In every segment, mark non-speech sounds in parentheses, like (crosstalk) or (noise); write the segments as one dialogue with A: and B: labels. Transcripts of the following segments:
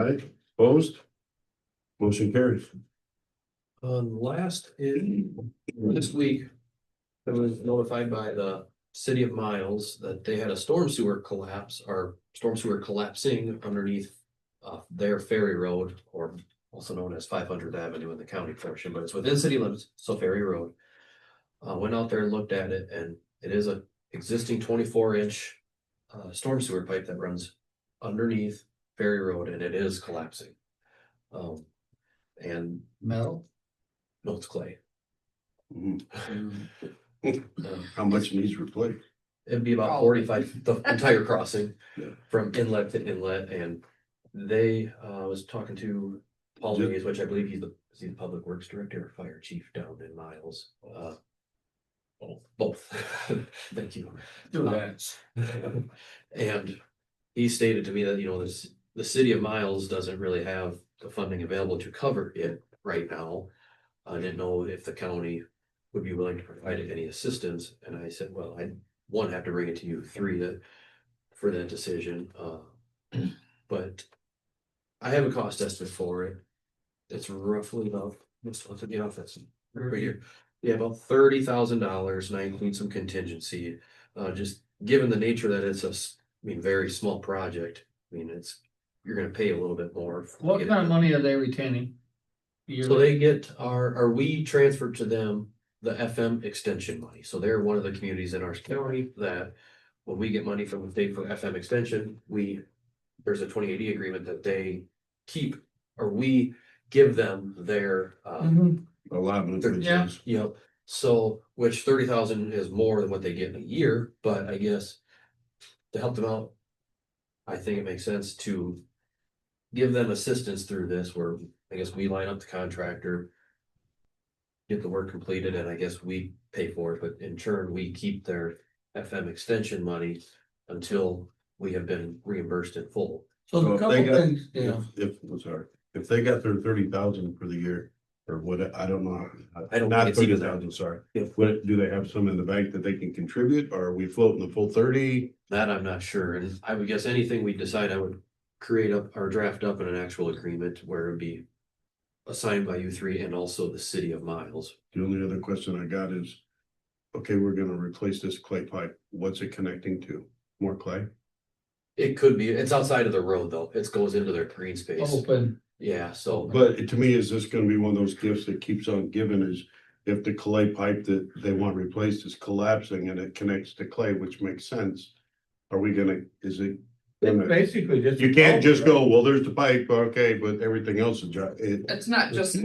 A: Aye. Opposed? Motion carries.
B: Um, last is, this week, I was notified by the city of Miles that they had a storm sewer collapse or storm sewer collapsing underneath. Uh, their ferry road, or also known as five hundredth avenue in the county portion, but it's within city limits, so ferry road. Uh, went out there and looked at it and it is a existing twenty-four inch. Uh, storm sewer pipe that runs underneath ferry road and it is collapsing. Um, and
C: metal.
B: no, it's clay.
A: Mhm.
C: Mm.
B: Um,
A: How much needs replaced?
B: It'd be about
C: Oh.
B: forty-five, the entire crossing
A: Yeah.
B: from inlet to inlet and they, uh, I was talking to Paul
A: Ju-
B: Mays, which I believe he's the, is he the public works director or fire chief down in Miles? Uh, Both, (laughs) thank you. Uh,
C: Do that.
B: (laughs) And he stated to me that, you know, this, the city of Miles doesn't really have the funding available to cover it right now. I didn't know if the county would be willing to provide any assistance, and I said, well, I, one, have to bring it to you, three, that, for that decision, uh, (clears throat) but I have a cost estimate for it. It's roughly about, let's look at the office, right here, yeah, about thirty thousand dollars, and I include some contingency, uh, just given the nature that it's a, s- I mean, very small project, I mean, it's, you're gonna pay a little bit more. to
C: What
B: get it
C: kind of
B: done.
C: money are they retaining? Yearly?
B: So they get our, or we transferred to them the FM extension money. So they're one of the communities in our county that when we get money from the state for FM extension, we, there's a twenty eighty agreement that they keep, or we give them their, uh,
C: Mhm.
A: Allotment.
C: Yeah.
B: you know, so, which thirty thousand is more than what they get in a year, but I guess to help them out, I think it makes sense to give them assistance through this, where I guess we line up the contractor, get the work completed, and I guess we pay for it, but in turn, we keep their FM extension money until we have been reimbursed in full.
C: So
A: Well,
C: a
A: if
C: couple
A: they got-
C: things, yeah,
A: If, if, I'm sorry, if they got their thirty thousand for the year, or what, I don't know.
B: I don't think
A: Not
B: it's even
A: thirty
B: that.
A: thousand, sorry.
B: Yeah.
A: What, do they have some in the bank that they can contribute, or are we floating the full thirty?
B: That I'm not sure, and I would guess anything we decide, I would create up or draft up in an actual agreement where it'd be assigned by you three and also the city of Miles.
A: The only other question I got is, okay, we're gonna replace this clay pipe, what's it connecting to? More clay?
B: It could be, it's outside of the road though, it goes into their green space,
C: open,
B: yeah, so,
A: But it- to me, is this gonna be one of those gifts that keeps on giving is if the clay pipe that they want replaced is collapsing and it connects to clay, which makes sense. Are we gonna, is it?
C: It's
A: gonna-
C: basically just.
A: You can't just go, well, there's the pipe, okay, but everything else is dry. It-
D: It's
A: (clears throat)
D: not just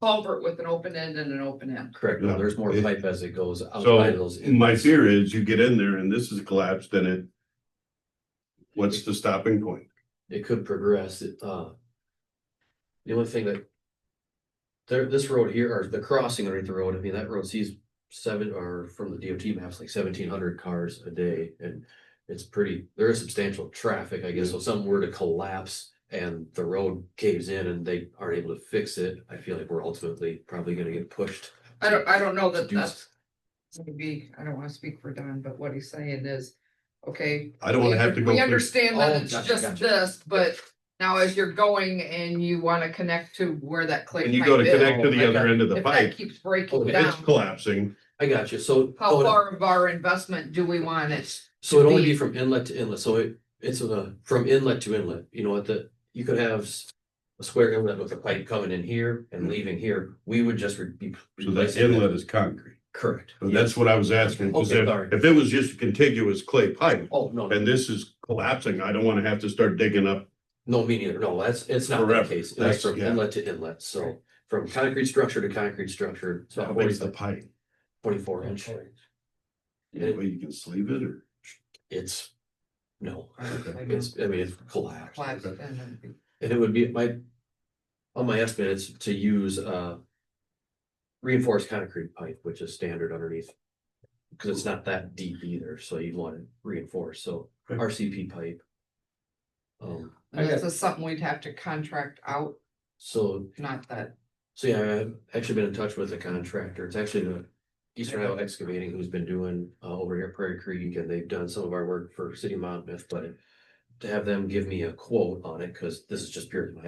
D: culvert with an open end and an open end.
B: correct, no, there's more
A: Yeah.
B: pipe as it goes outside of those.
A: My fear is you get in there and this is collapsed, then it. What's the stopping point?
B: it could progress, it, uh. The only thing that. There, this road here, or the crossing underneath the road, I mean, that road sees seven, or from the DOT maps, like seventeen hundred cars a day, and. It's pretty, there is substantial traffic, I guess, so if something were to collapse and the road caves in and they aren't able to fix it, I feel like we're ultimately probably gonna get pushed.
D: I don't, I don't know that
B: to do
D: that's maybe, I don't wanna speak for Don, but what he's saying is, okay.
A: I don't wanna
D: we-
A: have to go.
D: We
A: through-
D: understand that
B: Oh,
D: it's
B: gotcha,
D: just
B: gotcha.
D: this, but now as you're going and you wanna connect to where that clay
A: When
D: pipe
A: you go to
D: is.
A: connect to the other end of the
D: If that
A: pipe,
D: keeps
B: Oh,
D: breaking
B: if
A: it's
D: down,
A: collapsing.
B: I got you, so.
D: how far of our investment do we want it?
B: So it'd
D: to
B: only be
D: be-
B: from inlet to inlet, so it, it's a, from inlet to inlet, you know, at the, you could have. s- A square inlet with a pipe coming in here and leaving here, we would just re- be.
A: Mm-hmm. So that
B: replacing
A: inlet is concrete.
B: Correct.
A: So that's what I was asking, because
B: Okay,
A: if,
B: sorry.
A: if it was just a contiguous clay pipe
B: Oh, no, no,
A: and this is collapsing, I don't wanna have to start digging up.
B: no, me neither, no, that's, it's not the
A: Forever.
B: case, that's
A: That's-
B: from
A: yeah.
B: inlet to inlet, so. From concrete structure to concrete structure, it's
A: How
B: about
A: big's the
B: 40
A: pipe?
B: twenty-four inch,
A: Any way you can sleeve it or?
B: it's. No,
D: I guess.
B: it's, I mean, it's collapsed.
D: Collapse and then-
B: And it would be my, on my estimate, it's to use uh. Reinforced concrete pipe, which is standard underneath. Cause it's not that deep either, so you'd want it reinforced, so
A: Right.
B: RCP pipe. Um,
D: And
C: Okay.
D: this is something we'd have to contract out,
B: so,
D: not that,
B: so yeah, I've actually been in touch with a contractor, it's actually the. Eastern Iowa Excavating who's been doing uh over here at Prairie Creek and they've done some of our work for City of Monmouth, but. to have them give me a quote on it, cause this is just purely my